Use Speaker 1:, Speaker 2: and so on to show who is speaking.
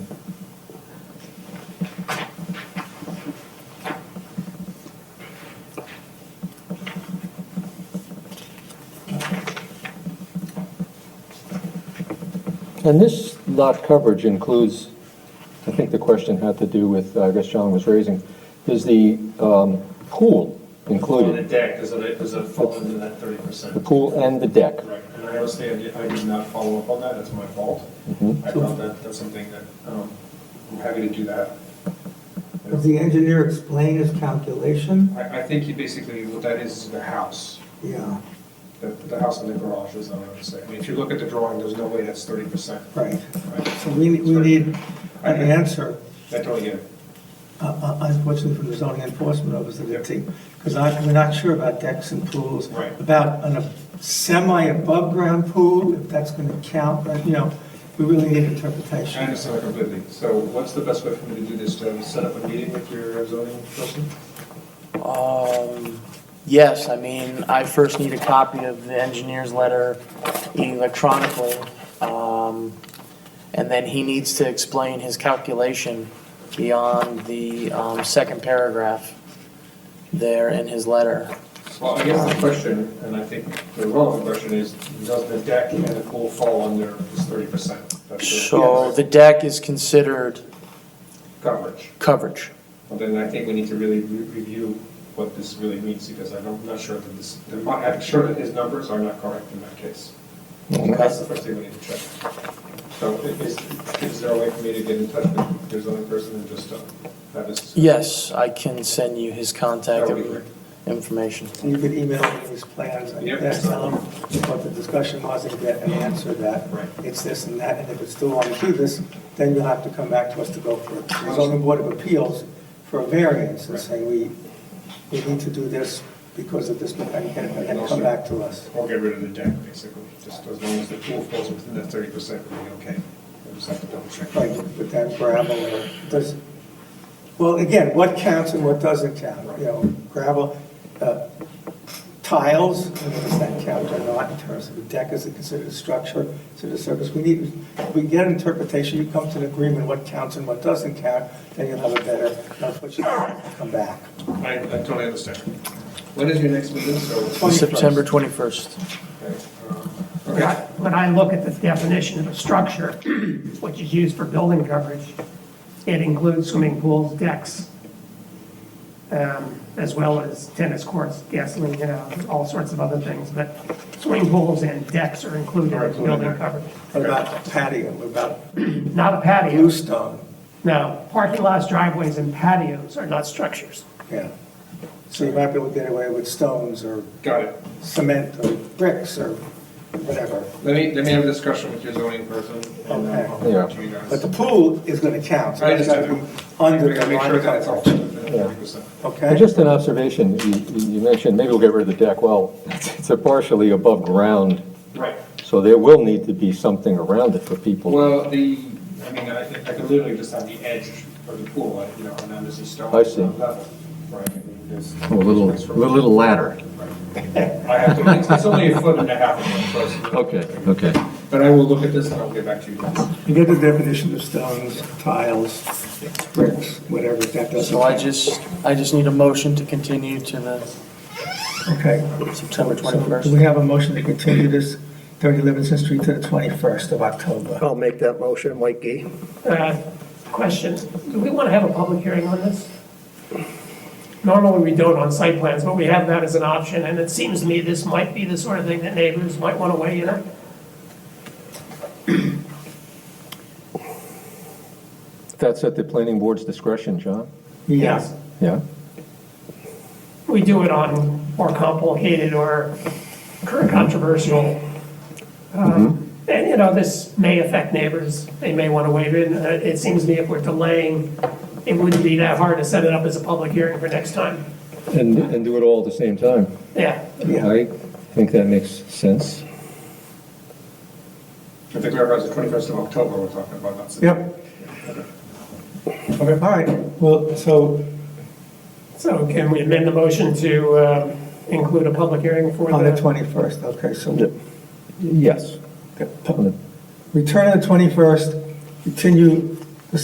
Speaker 1: And this lot coverage includes, I think the question had to do with, uh, I guess John was raising, is the um, pool
Speaker 2: On the
Speaker 1: included?
Speaker 2: deck, does it, does it fall into that thirty
Speaker 1: The
Speaker 2: percent?
Speaker 1: pool and the deck?
Speaker 2: Right, and I understand, I did not follow up on that, that's my fault. I thought that, that's something that, um, I'm happy to do that.
Speaker 3: Does the engineer explain his calculation?
Speaker 2: I, I think you basically, what that is, is the house,
Speaker 3: Yeah,
Speaker 2: the, the house and the garage is, what I'm saying. I mean, if you look at the drawing, there's no way that's thirty percent,
Speaker 3: right.
Speaker 2: right?
Speaker 3: So we, we need an answer,
Speaker 2: I totally get it.
Speaker 3: uh, uh, unfortunately, from the zoning enforcement officer to take, because I, we're not sure about decks and pools.
Speaker 2: Right.
Speaker 3: About a semi-above-ground pool, if that's going to count, but, you know, we really need
Speaker 2: I
Speaker 3: interpretation.
Speaker 2: understand completely. So what's the best way for me to do this, to set up a meeting with your zoning person?
Speaker 4: Um, yes, I mean, I first need a copy of the engineer's letter electronically. Um, and then he needs to explain his calculation beyond the, um, second paragraph there in his letter.
Speaker 2: Well, I guess the question, and I think the relevant question is, does the deck and the pool fall under this thirty percent?
Speaker 4: So the deck is considered
Speaker 2: Coverage.
Speaker 4: coverage.
Speaker 2: Well, then I think we need to really re- review what this really means, because I'm not- not sure that this, I'm sure that his numbers are not correct in that case. That's the first thing we need to check. So i- is, is there a way for me to get in touch with your zoning person and just, uh, have this?
Speaker 4: Yes, I can send you his contact
Speaker 2: That would be great.
Speaker 4: information.
Speaker 3: You could email me these plans, I
Speaker 2: Yep.
Speaker 3: guess, tell them what the discussion was and get an answer that
Speaker 2: Right.
Speaker 3: it's this and that, and if it's still on to this, then you'll have to come back to us to go for it. The zoning board of appeals for a variance and say, we, we need to do this because of this, and get it, and then come back to us.
Speaker 2: Or get rid of the deck, basically, just as long as the pool falls within that thirty percent, we'll be okay. We'll just have to double check.
Speaker 3: Like with that gravel or, does, well, again, what counts and what doesn't count, you know, gravel, uh, tiles, you know, does that count or not in terms of a deck, is it considered a structure, is it a surface? We need, we get interpretation, you come to an agreement what counts and what doesn't count, then you'll have a better, that's what you come back.
Speaker 2: I, I totally understand. When is your next meeting, so?
Speaker 3: 21st.
Speaker 4: September 21st.
Speaker 2: Okay, um,
Speaker 5: When I-
Speaker 2: Okay,
Speaker 5: when I look at the definition of a structure, which is used for building coverage, it includes swimming pools, decks, um, as well as tennis courts, gasoline, you know, all sorts of other things, but swimming pools and decks are included in building coverage.
Speaker 3: What about patio, what about
Speaker 5: Not a patio,
Speaker 3: bluestone?
Speaker 5: no, parking lots, driveways, and patios are not structures.
Speaker 3: Yeah. So you might be able to get away with stones or
Speaker 2: got it.
Speaker 3: cement or bricks or whatever.
Speaker 2: Let me, let me have a discussion with your zoning person and then I'll come back to you
Speaker 3: But
Speaker 2: guys.
Speaker 3: the pool is gonna count, so
Speaker 2: I
Speaker 3: that's gotta
Speaker 2: understand.
Speaker 3: be under
Speaker 2: We
Speaker 3: the
Speaker 2: gotta Make sure
Speaker 3: line
Speaker 2: that it's all
Speaker 3: coverage.
Speaker 2: thirty percent.
Speaker 1: And
Speaker 3: Okay?
Speaker 1: just an observation, you- you you mentioned, maybe we'll get rid of the deck, well, it's a partially above ground,
Speaker 2: Right.
Speaker 1: so there will need to be something around it for people.
Speaker 2: Well, the, I mean, I, I could literally just have the edge of the pool, like, you know, and then there's a stone.
Speaker 1: I see.
Speaker 2: Level, right? I mean, there's-
Speaker 1: A little, little ladder.
Speaker 2: I have to, it's- it's only a foot and a half of one person.
Speaker 1: Okay, okay.
Speaker 2: But I will look at this and I'll get back to you guys.
Speaker 3: You get the definition of stones, tiles, bricks, whatever, that doesn't.
Speaker 4: So I just, I just need a motion to continue to the
Speaker 3: Okay.
Speaker 4: September
Speaker 3: So
Speaker 4: 21st.
Speaker 3: do we have a motion to continue this 30 Livingston Street to the 21st of October?
Speaker 6: I'll make that motion, Mike Gee.
Speaker 5: Uh, Question, do we want to have a public hearing on this? Normally, we don't on site plans, but we have that as an option, and it seems to me this might be the sort of thing that neighbors might want to weigh in on.
Speaker 1: That's at the planning board's discretion, John?
Speaker 3: Yeah.
Speaker 1: Yeah?
Speaker 5: We do it on more complicated or controversial. um, And, you know, this may affect neighbors, they may want to weigh in. Uh, It seems to me if we're delaying, it wouldn't be that hard to set it up as a public hearing for next time.
Speaker 1: And, and do it all at the same time.
Speaker 5: Yeah,
Speaker 3: Yeah.
Speaker 1: I think that makes sense.
Speaker 2: I think we realize the twenty-first of October we're talking about, not September.
Speaker 3: Yep. Okay, all right, well, so
Speaker 5: so can we amend the motion to um, include a public hearing for
Speaker 3: on the
Speaker 5: the
Speaker 3: 21st, okay, so
Speaker 1: Yes.
Speaker 3: Return on the 21st, continue